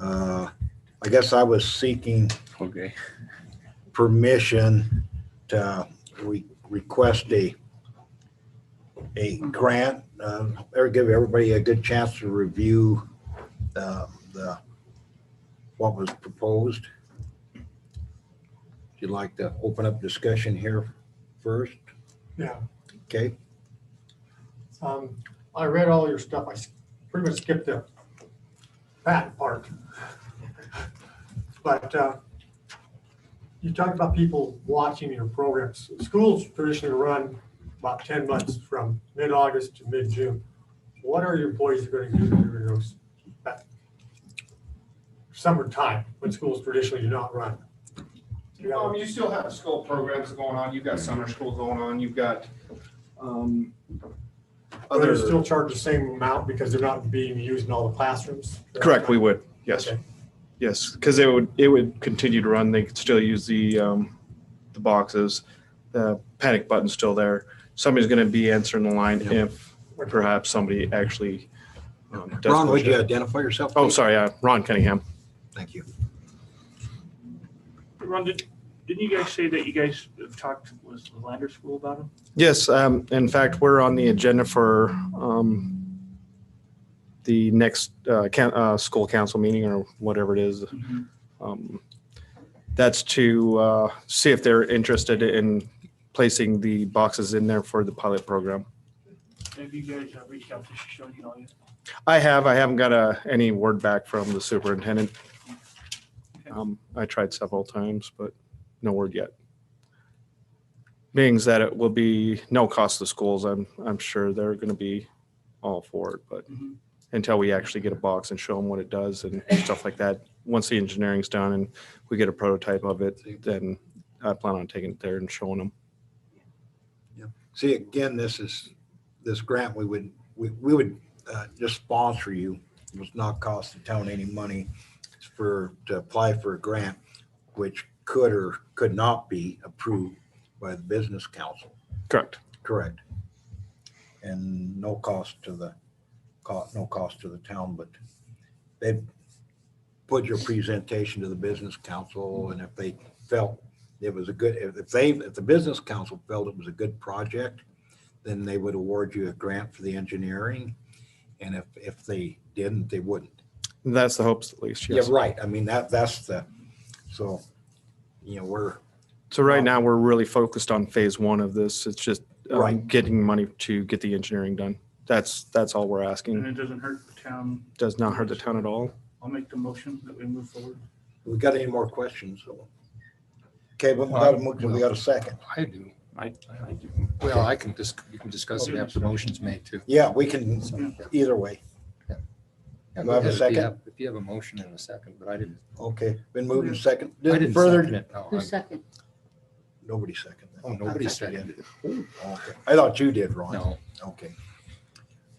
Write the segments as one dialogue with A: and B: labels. A: Uh, I guess I was seeking
B: Okay.
A: permission to re- request a, a grant, uh, or give everybody a good chance to review the, the, what was proposed. If you'd like to open up discussion here first,
C: Yeah,
A: okay?
C: um, I read all your stuff. I s- pretty much skipped the patent part. But, uh, you talked about people watching your programs. Schools traditionally run about ten months from mid-August to mid-June. What are your employees gonna do during those, that summertime when schools traditionally do not run? You
D: Um,
C: know,
D: you still have school programs going on, you've got summer school going on, you've got, um,
C: Are they
D: other,
C: still charged the same amount because they're not being used in all the classrooms?
D: correct, we would, yes,
C: Okay.
D: yes, because it would, it would continue to run, they could still use the, um, the boxes, the panic button's still there, somebody's gonna be answering the line
A: Yeah.
D: if perhaps somebody actually. um, does
A: Ron, would
D: push
A: you
D: it.
A: identify yourself?
D: Oh,
A: please?
D: sorry, uh, Ron Cunningham,
A: Thank you.
E: Ron, did, didn't you guys say that you guys have talked, was the Lander School about him?
D: yes, um, in fact, we're on the agenda for, um, the next, uh, coun uh, school council meeting or whatever it is,
E: Mm-hmm.
D: Um, That's to uh, see if they're interested in placing the boxes in there for the pilot program.
E: Have you guys uh, reached out to Shoshone Hall yet?
D: I have, I haven't got uh, any word back from the superintendent. Um, I tried several times, but no word yet. Being that it will be no cost to schools, I'm, I'm sure they're going to be all for it, but
E: Mhm.
D: until we actually get a box and show them what it does and stuff like that, once the engineering's done and we get a prototype of it, then I plan on taking it there and showing them.
A: See, again, this is, this grant, we would, we, we would uh, just sponsor you. It was not cost the town any money It's for, to apply for a grant, which could or could not be approved by the business council.
D: Correct.
A: Correct. And no cost to the, co- no cost to the town, but they put your presentation to the business council and if they felt it was a good, if if they, if the business council felt it was a good project, then they would award you a grant for the engineering. And if, if they didn't, they wouldn't.
D: That's the hopes at least,
A: Yeah,
D: yes.
A: right. I mean, that, that's the, so, you know, we're,
D: So right now, we're really focused on phase one of this. It's just um,
A: Right.
D: getting money to get the engineering done. That's, that's all we're
E: And
D: asking.
E: it doesn't hurt the town.
D: Does not hurt the town at all.
E: I'll make the motion that we move forward.
A: we got any more questions? Okay, but we got a, mo- we got a second.
F: I do. I, I do. Well, I can just, you can discuss it after the motion's made too.
A: Yeah, we can, either way.
F: Yeah,
A: Do I have a
F: if you
A: second?
F: If you have a motion and a second, but I didn't,
A: Okay, been moved and second.
F: I didn't second
A: Further,
F: it. No,
G: Who
F: I-
G: second?
A: nobody seconded.
F: Oh, nobody seconded it.
A: Okay, I thought you did, Ron.
F: No,
A: Okay.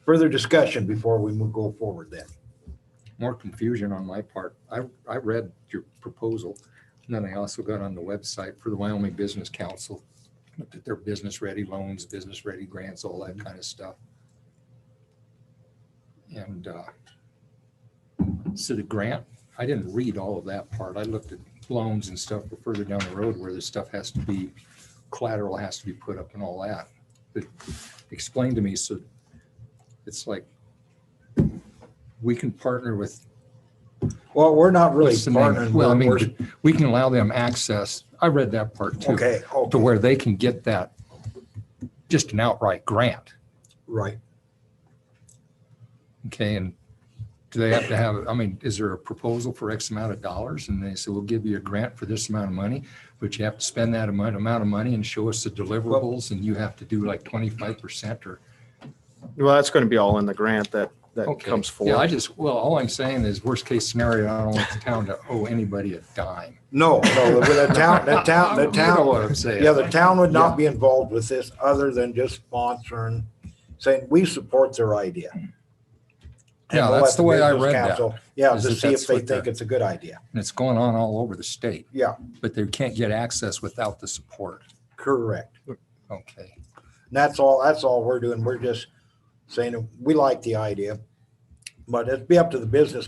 A: Further discussion before we move, go forward then.
F: more confusion on my part. I, I read your proposal. And then I also got on the website for the Wyoming Business Council, looked at their business-ready loans, business-ready grants, all that kind of stuff. And, uh, so the grant, I didn't read all of that part. I looked at loans and stuff further down the road where this stuff has to be, collateral has to be put up and all that. But explain to me, so it's like, we can partner with
A: Well, we're not really
F: What's the name of it?
A: partnering.
F: Well, I mean,
A: we're-
F: we can allow them access. I read that part too,
A: Okay, oh,
F: to where they can get that, just an outright grant.
A: right.
F: Okay, and do they have to have, I mean, is there a proposal for X amount of dollars? And they say, we'll give you a grant for this amount of money, but you have to spend that amount, amount of money and show us the deliverables and you have to do like twenty-five percent or.
D: Well, that's going to be all in the grant that, that
F: Okay.
D: comes
F: Yeah, I
D: forward.
F: just, well, all I'm saying is worst case scenario, I don't want the town to owe anybody a dime.
A: No, no, the the town, the town, the
F: You know
A: town,
F: What I'm saying.
A: yeah, the town would not be involved with this other than just sponsoring, saying we support their idea. And
F: Yeah,
A: we'll
F: that's
A: let
F: the way I
A: business
F: read that,
A: council- Yeah,
F: is
A: to
F: that
A: see if
F: that's
A: they
F: what the-
A: think it's a good idea.
F: And it's going on all over the state.
A: Yeah.
F: But they can't get access without the support.
A: Correct.
F: Okay.
A: And that's all, that's all we're doing. We're just saying, we like the idea. But it'd be up to the business